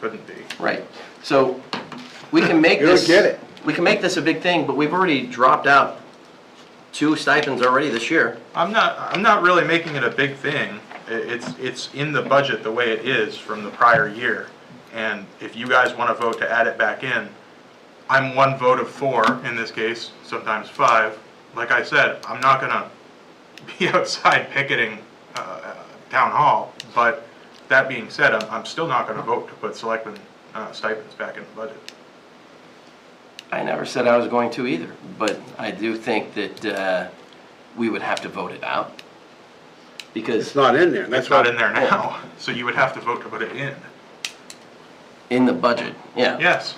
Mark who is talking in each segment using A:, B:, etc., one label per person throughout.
A: couldn't be.
B: Right, so we can make
C: You don't
B: this.
C: get it.
B: We can make this a big thing, but we've already dropped out two stipends already this year.
A: I'm not, I'm not really making it a big thing. I- It's, it's in the budget the way it is from the prior year. And if you guys want to vote to add it back in, I'm one vote of four in this case, sometimes five. Like I said, I'm not going to be outside picketing uh, uh, town hall. But that being said, I'm, I'm still not going to vote to put selectmen uh, stipends back in the budget.
B: I never said I was going to either, but I do think that uh, we would have to vote it out.
C: It's
B: Because
C: not in there, that's
A: It's not in
C: why,
A: there now, so you would have to vote to put it in.
B: in the budget, yeah,
A: Yes.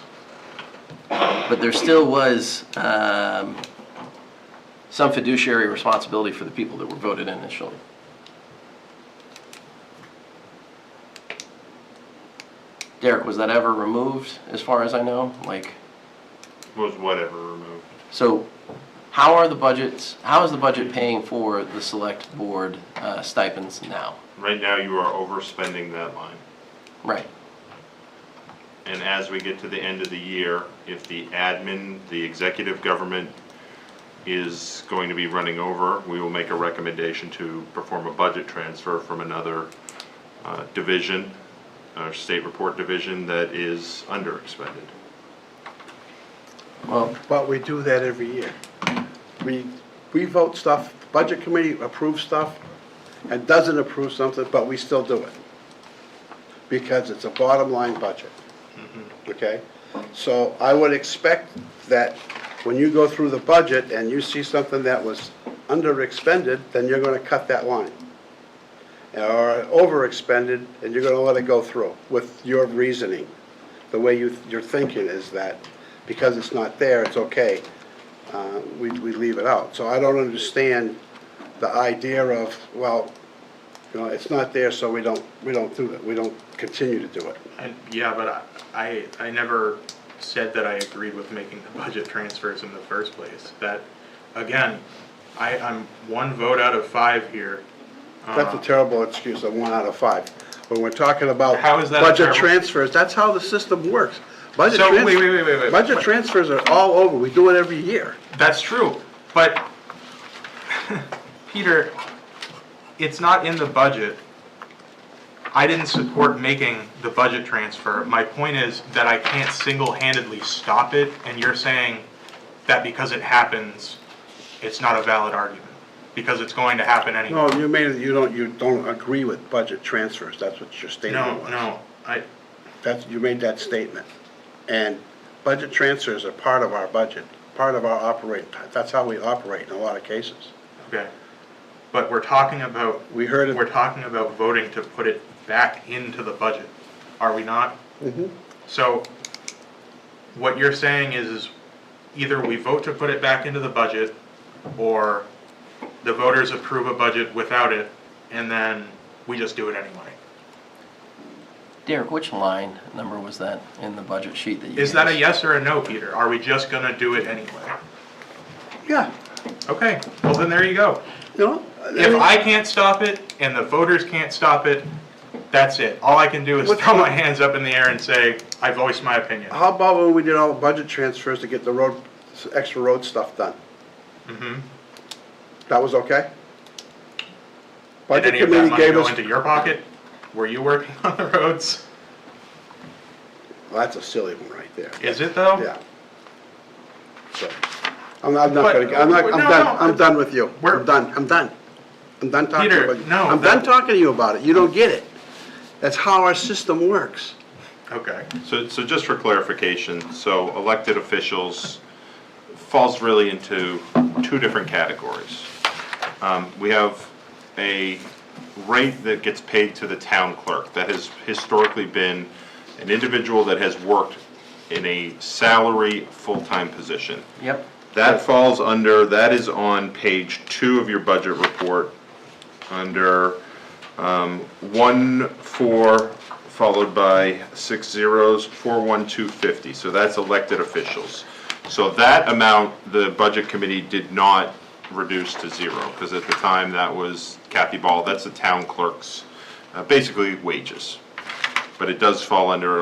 B: but there still was um, some fiduciary responsibility for the people that were voted in initially. Derek, was that ever removed, as far as I know? Like,
D: was whatever removed.
B: so how are the budgets, how is the budget paying for the select board uh, stipends now?
D: Right now, you are overspending that line.
B: Right.
D: And as we get to the end of the year, if the admin, the executive government is going to be running over, we will make a recommendation to perform a budget transfer from another uh, division, our state report division that is underexpended.
B: Well,
C: but we do that every year. We, we vote stuff, budget committee approves stuff and doesn't approve something, but we still do it. Because it's a bottom line budget, okay? So I would expect that when you go through the budget and you see something that was under expended, then you're gonna cut that line. Or over expended, and you're gonna let it go through with your reasoning. the way you, you're thinking is that because it's not there, it's okay, uh, we, we leave it out. So I don't understand the idea of, well, you know, it's not there, so we don't, we don't do it, we don't continue to do it.
A: And, yeah, but I- I, I never said that I agreed with making the budget transfers in the first place. That, again, I, I'm one vote out of five here. Ah.
C: That's a terrible excuse, a one out of five. When we're talking about
A: How is that a
C: budget
A: terrible-
C: transfers, that's how the system works. Budget
A: So, wait,
C: trans-
A: wait, wait, wait, wait.
C: Budget transfers are all over, we do it every year.
A: That's true, but, Peter, it's not in the budget. I didn't support making the budget transfer. My point is that I can't single-handedly stop it, and you're saying that because it happens, it's not a valid argument, because it's going to happen anyway.
C: No, you made, it- you don't, you don't agree with budget transfers, that's what your statement
A: No,
C: was.
A: no, I,
C: That's, you made that statement. And budget transfers are part of our budget, part of our operating, that's how we operate in a lot of cases.
A: okay. But we're talking about,
C: We heard
A: we're
C: it,
A: talking about voting to put it back into the budget, are we not? So, what you're saying is, is either we vote to put it back into the budget, or the voters approve a budget without it, and then we just do it anyway.
B: Derek, which line number was that in the budget sheet that you?
A: Is that a
B: gave us?
A: yes or a no, Peter? Are we just gonna do it anyway?
C: yeah,
A: Okay, well then there you go.
C: you know?
A: If I can't stop it and the voters can't stop it, that's it. All I can do is throw my hands up in the air and say, I voiced my opinion.
C: How about when we did all the budget transfers to get the road, extra road stuff done?
A: Mm-hmm.
C: That was okay?
A: Did
C: Budget
A: any of that
C: committee
A: money
C: gave
A: go
C: us,
A: into your pocket? Were you working on the roads?
C: Well, that's a silly one right there.
A: Is it though?
C: Yeah. So, I'm I'm not
A: But-
C: gonna, I'm not, I'm
A: no,
C: done,
A: no,
C: I'm done with you.
A: we're-
C: I'm done, I'm done. I'm done talking
A: Peter,
C: about you.
A: no,
C: I'm
A: that-
C: done talking to you about it. You don't get it. That's how our system works.
A: Okay.
D: So, so just for clarification, so elected officials falls really into two different categories. Um, We have a rate that gets paid to the town clerk, that has historically been an individual that has worked in a salary full-time position.
B: Yep,
D: That falls under, that is on page two of your budget report, under um, one, four, followed by six zeros, four, one, two, fifty. So that's elected officials. So that amount, the budget committee did not reduce to zero, because at the time, that was Kathy Ball, that's the town clerk's, uh, basically wages. But it does fall under